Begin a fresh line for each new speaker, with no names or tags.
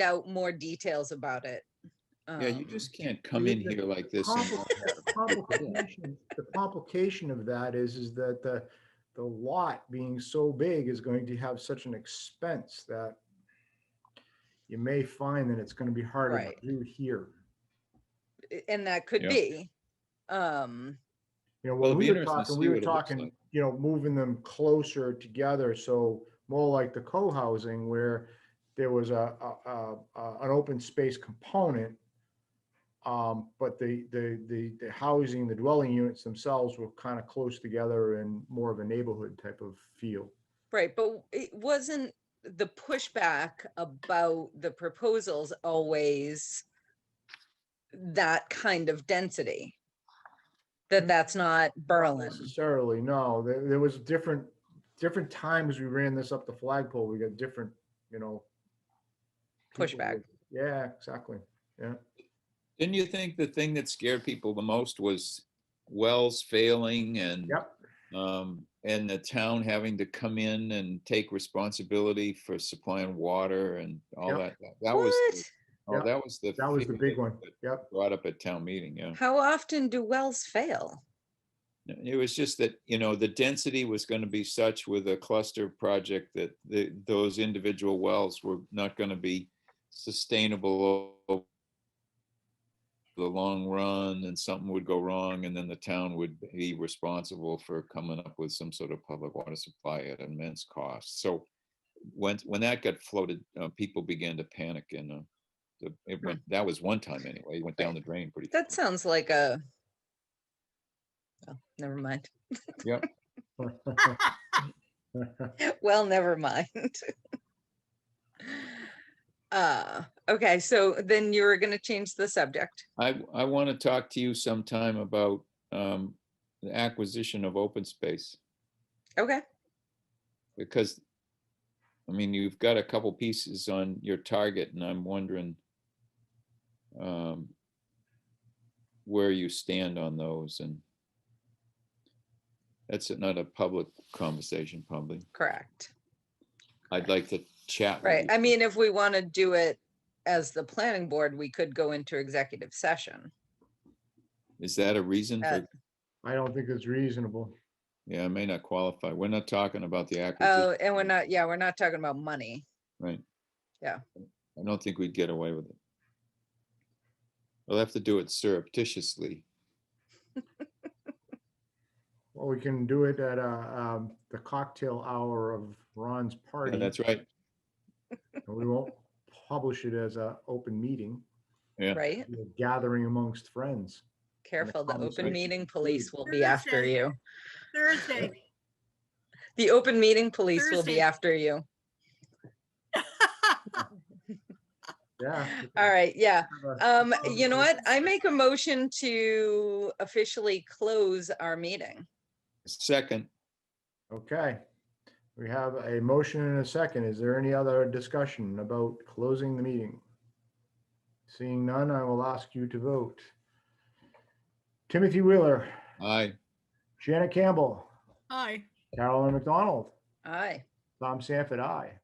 out more details about it.
Yeah, you
Um,
just can't come in
the-
here like this. and
Compli-
not have-
the complication- The complication of that is, is that the, the lot being so big is going to have such an expense that you may find that it's gonna be harder
Right.
to do here.
And that could
Yeah.
be. Um,
You know,
Well,
when
it'll
we
be
were
interesting to
talking,
see
we were
what it looks
talking,
like.
you know, moving them closer together, so more like the co-housing where there was a, a, a, a- an open space component. Um, but the, the, the, the housing, the dwelling units themselves were kind of close together and more of a neighborhood type of feel.
right, but it wasn't the pushback about the proposals always that kind of density?
Mm.
That that's not Berlin,
Necessarily, no, there, there was different, different times we ran this up the flagpole, we got different, you know. people
Pushback.
with- Yeah, exactly.
Didn't you think the thing that scared people the most was wells failing and
Yep.
um, and the town having to come in and take responsibility for supplying water and all that?
Yep.
That- That was, the-
What?
oh,
Yep.
that was the.
That was the
fear
big
that-
one.
that
Yep.
Brought up at town meeting, yeah.
How often do wells fail?
It was just that, you know, the density was going to be such with a cluster project that the, those individual wells were not going to be sustainable o- the long run and something would go wrong and then the town would be responsible for coming up with some sort of public water supply at immense cost. So when, when that got floated, uh, people began to panic and, uh, the, it went, that was one time anyway, it went down the drain pretty.
That sounds like a. Oh, Never mind. Well, never mind. Uh, okay, so then you're gonna change the subject.
I, I want to talk to you sometime about um, the acquisition of open space,
Okay,
because, I mean, you've got a couple pieces on your target, and I'm wondering um, where you stand on those, and that's not a public conversation, probably.
correct.
I'd like to chat. with
Right,
you.
I mean, if we want to do it as the planning board, we could go into executive session.
Is that a reason
Uh,
for,
I don't think it's reasonable.
yeah, I may not qualify. We're not talking about the
Oh,
acquisition.
and we're not, yeah, we're not talking about money.
Right.
Yeah.
I don't think we'd get away with it. We'll have to do it surreptitiously.
Well, we can do it at uh, um, the cocktail hour of Ron's party.
Yeah, that's right.
and We won't publish it as a open meeting,
Yeah.
Right?
It'll be a gathering amongst friends.
Careful, the open
conversation.
meeting police will be after
Thursday.
you.
Thursday.
The open meeting police will be
Thursday.
after you.
Yeah.
All right, yeah.
right.
Um,
Oh,
you know what? I make a motion to officially close our meeting.
Second,
Okay. We have a motion and a second. Is there any other discussion about closing the meeting? Seeing none, I will ask you to vote. Timothy Wheeler,
aye.
Janet Campbell,
Hi.
Carolyn McDonald,
Aye.
Tom Sanford, aye.